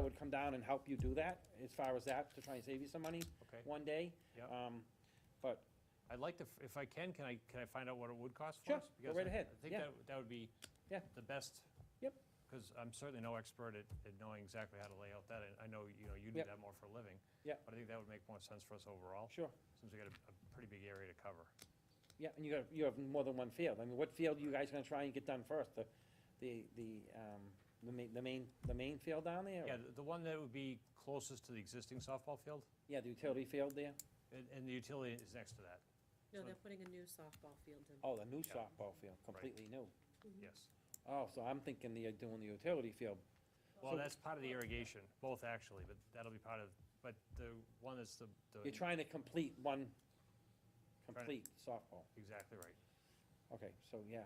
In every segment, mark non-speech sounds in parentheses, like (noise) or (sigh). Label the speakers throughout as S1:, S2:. S1: would come down and help you do that, as far as that, to try and save you some money
S2: Okay,
S1: one day.
S2: Yep.
S1: Um, But,
S2: I'd like to, f- if I can, can I, can I find out what it would cost
S1: Sure,
S2: for us?
S1: go
S2: Because
S1: right
S2: I-
S1: ahead,
S2: I think
S1: yeah.
S2: that, that would be
S1: Yeah.
S2: the best.
S1: Yep.
S2: Because I'm certainly no expert at, at knowing exactly how to lay out that, and I know, you know, you do
S1: Yep.
S2: that more for a living.
S1: Yep.
S2: But I think that would make more sense for us overall,
S1: sure,
S2: since we got a, a pretty big area to cover.
S1: yeah, and you got, you have more than one field. I mean, what field you guys gonna try and get done first? The, the, the, um, the main, the main, the main field down there? or-
S2: Yeah, the, the one that would be closest to the existing softball field,
S1: Yeah, the utility field there?
S2: and, and the utility is next to that,
S3: No,
S2: So-
S3: they're putting a new softball field in.
S1: Oh, the new
S2: Yeah.
S1: softball field, completely new.
S2: yes.
S1: Oh, so I'm thinking they're doing the utility field.
S2: Well,
S1: So-
S2: that's part of the irrigation, both actually, but that'll be part of, but the one that's the, the,
S1: You're trying to complete one,
S2: Trying to-
S1: complete softball.
S2: exactly right,
S1: Okay, so, yeah.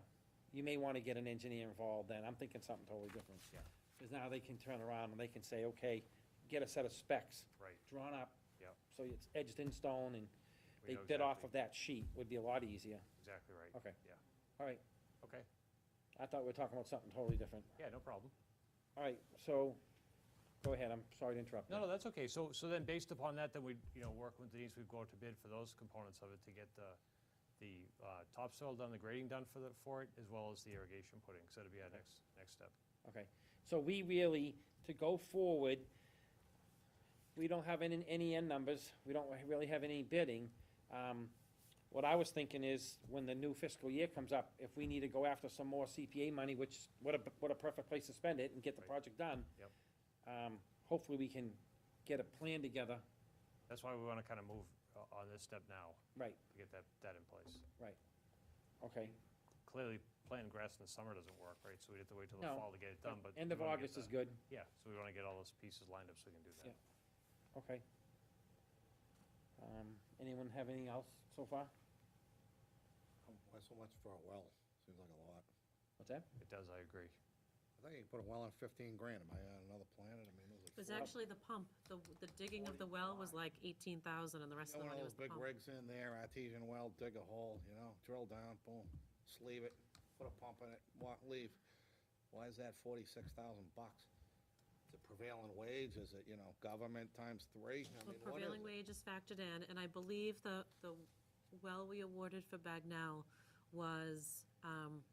S1: You may wanna get an engineer involved then. I'm thinking something totally different.
S2: Yeah.
S1: Cause now they can turn around and they can say, okay, get a set of specs
S2: right.
S1: drawn up.
S2: Yep.
S1: So it's edged in stone and
S2: We
S1: they
S2: know
S1: bit off of
S2: exactly-
S1: that sheet would be a lot easier.
S2: Exactly right.
S1: Okay.
S2: Yeah.
S1: All right,
S2: Okay,
S1: I thought we were talking about something totally different.
S2: yeah, no problem.
S1: All right, so, go ahead, I'm sorry to interrupt you.
S2: No, no, that's okay. So, so then based upon that, then we, you know, work with Denise, we go out to bid for those components of it to get the, the uh, topsoil done, the grading done for the, for it, as well as the irrigation putting. So that'd be our next, next step.
S1: Okay, so we really, to go forward, we don't have any, any end numbers, we don't really have any bidding. Um, What I was thinking is, when the new fiscal year comes up, if we need to go after some more CPA money, which, what a, what a perfect place to spend it and get the
S2: Right.
S1: project done.
S2: Yep.
S1: Um, Hopefully, we can get a plan together,
S2: That's why we want to kind of move uh, on this step now,
S1: right,
S2: to get that, that in place.
S1: okay.
S2: Clearly, planting grass in the summer doesn't work, right? So we'd have to wait till the
S1: No.
S2: fall to get it done, but.
S1: End of
S2: we wanna get
S1: August is
S2: the-
S1: good,
S2: Yeah, so we want to get all those pieces lined up so we can do that.
S1: Yeah. okay. Um, Anyone have anything else so far?
S4: Why so much for a well? Seems like a lot.
S1: What's that?
S2: It does, I agree.
S4: I think you can put a well on fifteen grand. Am I on another planet? I mean,
S3: It
S4: those
S3: was
S4: are.
S3: actually the pump, the, the digging of the well was like eighteen thousand and the rest
S4: Got
S3: of the
S4: one of
S3: money was
S4: those
S3: the
S4: big
S3: pump.
S4: rigs in there, artesian well, dig a hole, you know, drill down, boom, sleeve it, put a pump in it, walk, leave. Why is that forty-six thousand bucks? Is it prevailing wage? Is it, you know, government times three?
S3: Well,
S4: I mean, what is
S3: prevailing
S4: it?
S3: wage is factored in, and I believe the, the well we awarded for Bagnell was, um,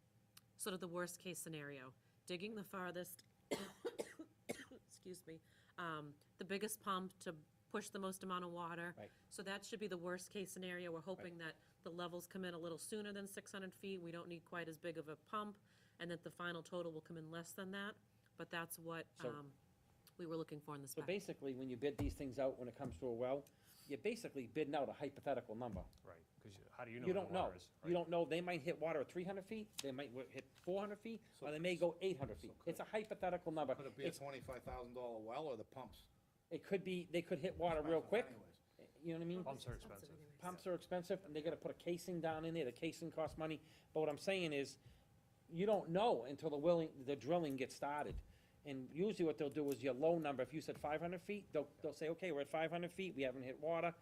S3: sort of the worst-case scenario, digging the farthest, (coughs) excuse me, um, the biggest pump to push the most amount of water.
S1: Right.
S3: So that should be the worst-case scenario. We're hoping that the levels come in a little sooner than six hundred feet. We don't need quite as big of a pump, and that the final total will come in less than that. But that's what,
S1: So-
S3: um, we were looking for in the
S1: So
S3: spec.
S1: basically, when you bid these things out, when it comes to a well, you're basically bidding out a hypothetical number.
S2: Right, because how do you know
S1: You
S2: where the
S1: don't know.
S2: water is?
S1: You don't know, they might hit water at three hundred feet, they might wi- hit four hundred feet, or they may go eight hundred feet.
S4: could-
S1: It's a hypothetical number.
S4: Could it be a
S1: It's,
S4: twenty-five thousand dollar well or the pumps?
S1: it could be, they could hit water real
S4: Pumps
S1: quick,
S4: anyways.
S1: you know what I mean?
S2: Pumps are expensive.
S3: anyways.
S1: Pumps are expensive, and they gotta put a casing down in there, the casing costs money, but what I'm saying is, you don't know until the willing, the drilling gets started. And usually what they'll do is your low number, if you said five hundred feet, they'll, they'll say, okay, we're at five hundred feet, we haven't hit water,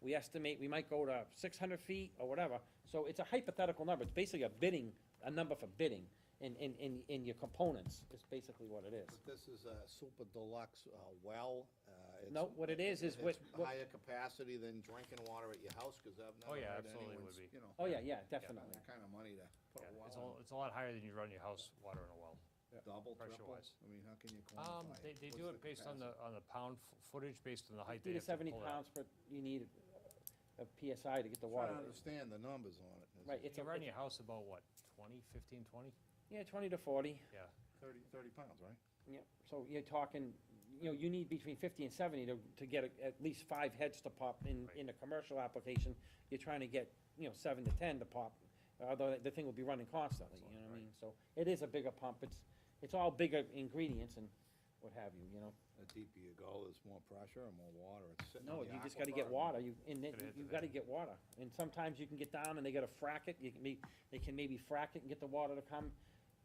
S1: we estimate we might go to six hundred feet or whatever, so it's a hypothetical number, it's basically a bidding, a number for bidding, in, in, in, in your components, is basically what it is.
S4: But This is a super deluxe uh, well. uh, it's-
S1: No, what it is, is what-
S4: it's
S1: what-
S4: higher capacity than drinking water at your house, because I've
S2: Oh,
S4: never
S2: yeah,
S4: heard
S2: absolutely it would
S4: anyone's,
S2: be.
S4: you know.
S1: Oh, yeah, yeah,
S4: spending
S1: definitely,
S4: That kind of money to put
S2: Yeah,
S4: a
S2: it's a,
S4: well
S2: it's a lot higher than you run your house water in a well.
S4: in, double,
S2: pressure
S4: triple?
S2: wise.
S4: I mean, how can you
S2: Um,
S4: quantify
S2: they,
S4: it?
S2: they
S4: What's
S2: do it based on the,
S4: capacity?
S2: on the pound f- footage, based on the height they
S1: fifty to
S2: have to
S1: seventy
S2: pull out.
S1: pounds per, you need a PSI to get the
S4: Trying
S1: water.
S4: to understand the numbers on it. Is
S1: Right,
S4: it
S1: it's
S2: You
S1: a,
S2: run your house about, what, 20, 15, 20?
S1: yeah, twenty to forty.
S2: Yeah,
S4: Thirty, thirty pounds, right?
S1: Yeah, so you're talking, you know, you need between fifty and seventy to, to get a- at least five heads to pop in,
S2: Right.
S1: in a commercial application. You're trying to get, you know, seven to ten to pop, although the thing will be running constantly, you know what I mean? So it is a bigger pump, it's, it's all bigger ingredients and what have you, you know?
S4: The deeper you go, there's more pressure and more water. It's sitting
S1: No,
S4: on
S1: you
S4: the
S1: just gotta
S4: aquifer.
S1: get water, you, and then,
S2: Gotta hit the
S1: you gotta
S2: thing.
S1: get water. And sometimes you can get down and they gotta frack it, you can may, they can maybe frack it and get the water to come.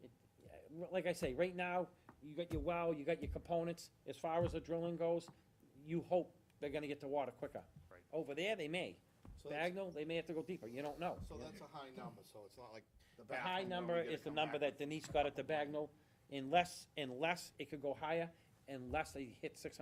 S1: It- uh, Like I say, right now, you got your well, you got your components, as far as the drilling goes, you hope they're gonna get the water quicker.
S2: Right.
S1: Over there, they may.
S4: So that's-
S1: Bagnell, they may have to go deeper, you don't know.
S4: So that's a high number, so it's not like the
S1: The high
S4: bathroom
S1: number
S4: we gotta
S1: is the
S4: come
S1: number
S4: back
S1: that Denise got at the Bagnell, unless, unless it could go higher, unless they hit six